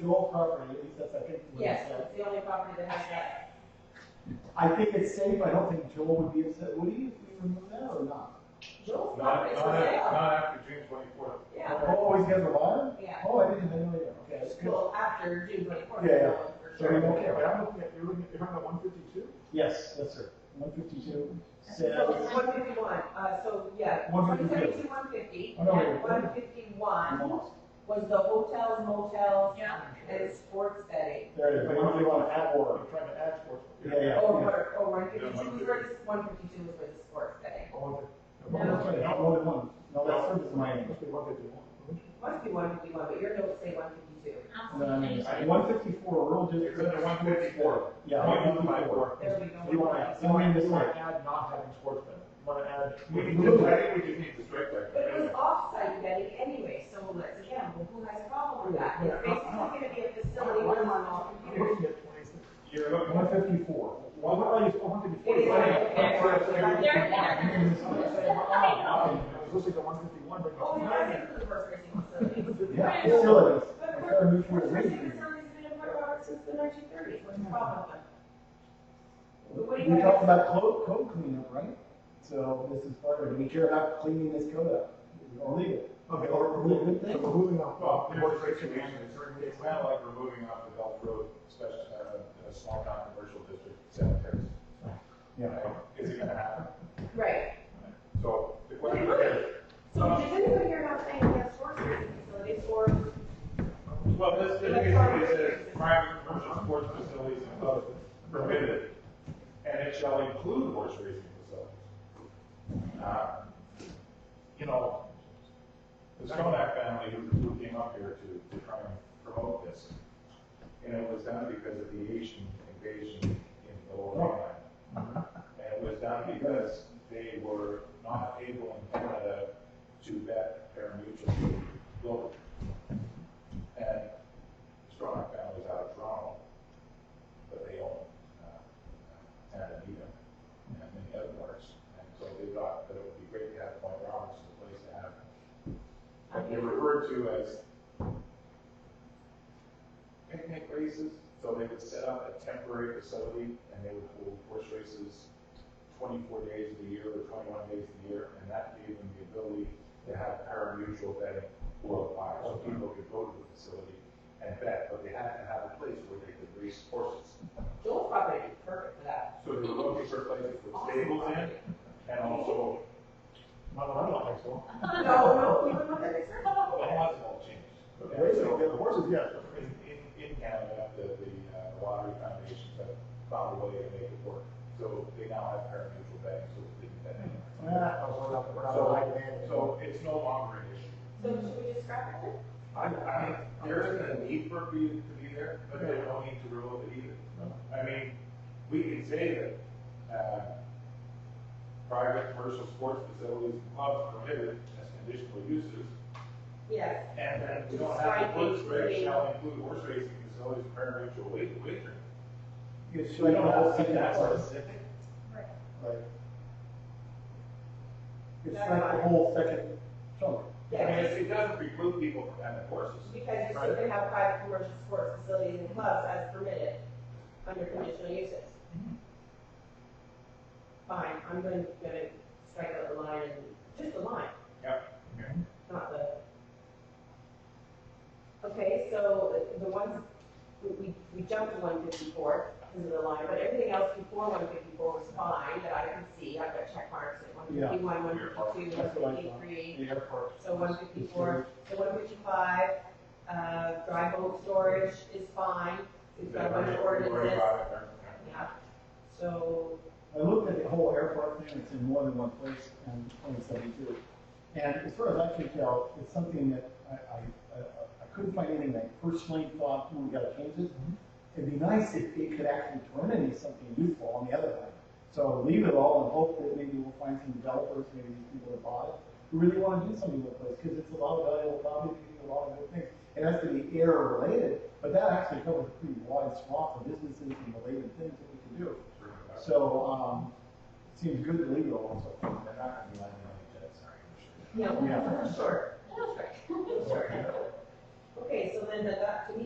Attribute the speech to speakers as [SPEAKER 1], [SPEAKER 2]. [SPEAKER 1] your property, at least that's, I think, what it
[SPEAKER 2] Yes,
[SPEAKER 1] said.
[SPEAKER 2] it's the only property that has that.
[SPEAKER 1] I think it's safe, I don't think Joel would be upset, would he, if we remove that or not?
[SPEAKER 2] Joel's
[SPEAKER 3] Not,
[SPEAKER 2] property's for
[SPEAKER 3] not, after-
[SPEAKER 2] sale.
[SPEAKER 3] not after June twenty-fourth.
[SPEAKER 2] Yeah,
[SPEAKER 1] Oh, he's got a buyer?
[SPEAKER 2] yeah.
[SPEAKER 1] Oh, I didn't, I didn't know that, okay, that's good.
[SPEAKER 2] Well, after June twenty-fourth,
[SPEAKER 1] Yeah, yeah.
[SPEAKER 2] for
[SPEAKER 1] So we won't
[SPEAKER 2] sure.
[SPEAKER 1] care.
[SPEAKER 3] but I'm looking at, you're looking, you're talking about one fifty-two?
[SPEAKER 1] Yes, that's sir. One fifty-two
[SPEAKER 2] So
[SPEAKER 1] says,
[SPEAKER 2] it's one fifty-one, uh, so, yeah, one
[SPEAKER 1] 152.
[SPEAKER 2] seventy-two, one fifty,
[SPEAKER 1] Oh, no, wait,
[SPEAKER 2] and
[SPEAKER 1] wait, wait.
[SPEAKER 2] one fifty-one was the hotels, motels,
[SPEAKER 4] Yeah.
[SPEAKER 2] and sports betting.
[SPEAKER 1] there it is,
[SPEAKER 3] But
[SPEAKER 1] one
[SPEAKER 3] you're
[SPEAKER 1] fifty-one at
[SPEAKER 3] looking at
[SPEAKER 1] or.
[SPEAKER 3] You're trying to add sports.
[SPEAKER 1] Yeah, yeah.
[SPEAKER 2] Or, or, or Oh, one
[SPEAKER 3] Yeah,
[SPEAKER 2] fifty-two was where, one fifty-two was where the sports betting.
[SPEAKER 3] Oh,
[SPEAKER 1] No,
[SPEAKER 3] okay.
[SPEAKER 1] that's right, not more than one. No, that's service mining.
[SPEAKER 3] Must be one fifty-one.
[SPEAKER 2] Must be one fifty-one, but your notes say one fifty-two.
[SPEAKER 4] I'll
[SPEAKER 1] And then
[SPEAKER 4] see.
[SPEAKER 1] one fifty-four, rural district.
[SPEAKER 3] It's under one fifty-four.
[SPEAKER 1] Yeah,
[SPEAKER 3] Point
[SPEAKER 1] one
[SPEAKER 3] one five
[SPEAKER 1] fifty-four.
[SPEAKER 3] four.
[SPEAKER 2] There we go.
[SPEAKER 1] You wanna, you
[SPEAKER 3] You
[SPEAKER 1] wanna
[SPEAKER 3] want
[SPEAKER 1] miss
[SPEAKER 3] to
[SPEAKER 1] like,
[SPEAKER 3] add not having sports betting. You want to add.
[SPEAKER 1] We
[SPEAKER 3] We
[SPEAKER 1] can
[SPEAKER 3] just,
[SPEAKER 1] do it.
[SPEAKER 3] I think we just need to strike that.
[SPEAKER 2] But it was off-site betting anyway, so let's, again, well, who has a problem with that? It's basically gonna be a facility with one off
[SPEAKER 3] You're
[SPEAKER 2] computer.
[SPEAKER 3] looking at twenty-six. You're looking.
[SPEAKER 1] one fifty-four.
[SPEAKER 3] Well, what are you, oh, one fifty-four?
[SPEAKER 2] It is.
[SPEAKER 4] They're
[SPEAKER 3] I
[SPEAKER 4] there.
[SPEAKER 3] was listening to one fifty-one, but.
[SPEAKER 2] Oh, you guys include the horse racing facilities.
[SPEAKER 1] Yeah, facilities.
[SPEAKER 2] But
[SPEAKER 1] Like,
[SPEAKER 2] horse
[SPEAKER 1] our new
[SPEAKER 2] horse
[SPEAKER 1] fuel
[SPEAKER 2] racing
[SPEAKER 1] rate.
[SPEAKER 2] facilities have been in Port Robert since the nineteen thirties, what's the problem with them?
[SPEAKER 1] We talked about code, code cleanup, right? So this is part of it. We care about cleaning this code up, or leave it.
[SPEAKER 3] Okay, or
[SPEAKER 1] Or
[SPEAKER 3] remove,
[SPEAKER 1] leave it.
[SPEAKER 3] so removing off,
[SPEAKER 5] Well,
[SPEAKER 3] well,
[SPEAKER 5] there's
[SPEAKER 3] what
[SPEAKER 5] a
[SPEAKER 3] is right
[SPEAKER 5] great
[SPEAKER 3] to
[SPEAKER 5] situation,
[SPEAKER 3] manage,
[SPEAKER 5] it's very- it's kind of like removing off the Gulf Road, especially a small town commercial district cemetery.
[SPEAKER 1] Yeah.
[SPEAKER 5] Is it gonna happen?
[SPEAKER 2] Right,
[SPEAKER 5] So the question is,
[SPEAKER 2] so does anybody here have anything against horse racing facilities or?
[SPEAKER 5] well, this, this basically says private commercial sports facilities and clubs permitted, and it shall include horse racing facilities. Uh, You know, the Stonak family who- who came up here to, to try and promote this, and it was done because of the Asian invasion in the Lower Mainland. And it was done because they were not able in Canada to bet their mutual global. And Stronach family was out of Toronto, but they own, uh, Tandanita and many other parts. And so they thought that it would be great to have Point Roberts as a place to have. But they referred to as picnic races, so they would set up a temporary facility and they would hold horse races twenty-four days of the year or twenty-one days of the year, and that gave them the ability to have paramutual betting worldwide, so people could go to the facility and bet, but they had to have a place where they could race horses.
[SPEAKER 2] Joel's property is perfect for that.
[SPEAKER 5] So they were looking for places with stables in, and also,
[SPEAKER 3] not what I don't think so.
[SPEAKER 2] No, no, we would look at this.
[SPEAKER 5] well, it has all changed.
[SPEAKER 3] But raising, the horses, yes,
[SPEAKER 5] In, in, in Canada, the, the uh, lottery foundations have found a way to make it work. So they now have parimutuel betting, so they can bet anywhere.
[SPEAKER 1] Ah,
[SPEAKER 3] I was not, we're not
[SPEAKER 5] So-
[SPEAKER 3] like that.
[SPEAKER 5] So it's no longer an issue.
[SPEAKER 2] So should we just scrap it?
[SPEAKER 5] I, I, there isn't a need for it be- to be there, but there's no need to rule it either. I mean, we can say that, uh, private commercial sports facilities and clubs permitted as conditional uses,
[SPEAKER 2] Yes.
[SPEAKER 5] and then we don't have the horse race shall include horse racing facilities, parimutuel wa- wagering.
[SPEAKER 1] It's
[SPEAKER 5] We
[SPEAKER 1] like
[SPEAKER 5] don't
[SPEAKER 1] a whole
[SPEAKER 5] have to be
[SPEAKER 1] second
[SPEAKER 5] that
[SPEAKER 1] part.
[SPEAKER 5] specific.
[SPEAKER 1] Like, it's like the whole second chunk.
[SPEAKER 5] I mean,
[SPEAKER 2] Yes,
[SPEAKER 5] it it doesn't preclude people from having horses.
[SPEAKER 2] because you still
[SPEAKER 5] Right.
[SPEAKER 2] can have private commercial sports facilities and clubs as permitted under conditional uses.
[SPEAKER 1] Mm-hmm.
[SPEAKER 2] Fine, I'm going to, going to strike out the line, and just the line.
[SPEAKER 5] Yep.
[SPEAKER 2] Not the. Okay, so the ones, we, we- we jumped to one fifty-four because of the line, but everything else before one fifty-four was fine that I could see. I've got check marks at one
[SPEAKER 1] Yeah.
[SPEAKER 2] fifty-one, one fifty-two,
[SPEAKER 1] That's what
[SPEAKER 2] one
[SPEAKER 1] I thought.
[SPEAKER 2] fifty-three.
[SPEAKER 1] The airport.
[SPEAKER 2] So one fifty-four, so one fifty-five, uh, dry bulk storage is fine, we've got a bunch of ordinances, yeah. So,
[SPEAKER 1] I looked at the whole airport thing, it's in more than one place in twenty seventy-two. And as far as I can tell, it's something that I, I, I, I couldn't find anything that I personally thought, hmm, we gotta change it. It'd be nice if it could actually turn into something useful on the other hand. So leave it all and hope that maybe we'll find some developers, maybe these people that bought it, who really wanna do something with this, cause it's a lot of valuable property, a lot of good things. It has to be air related, but that actually covers a pretty wide swath of businesses and related things that we can do. So, um, seems good to leave it all, so far, but I- I mean, I
[SPEAKER 2] yeah,
[SPEAKER 1] Yeah.
[SPEAKER 2] sure, sure. Okay, so then that, that to me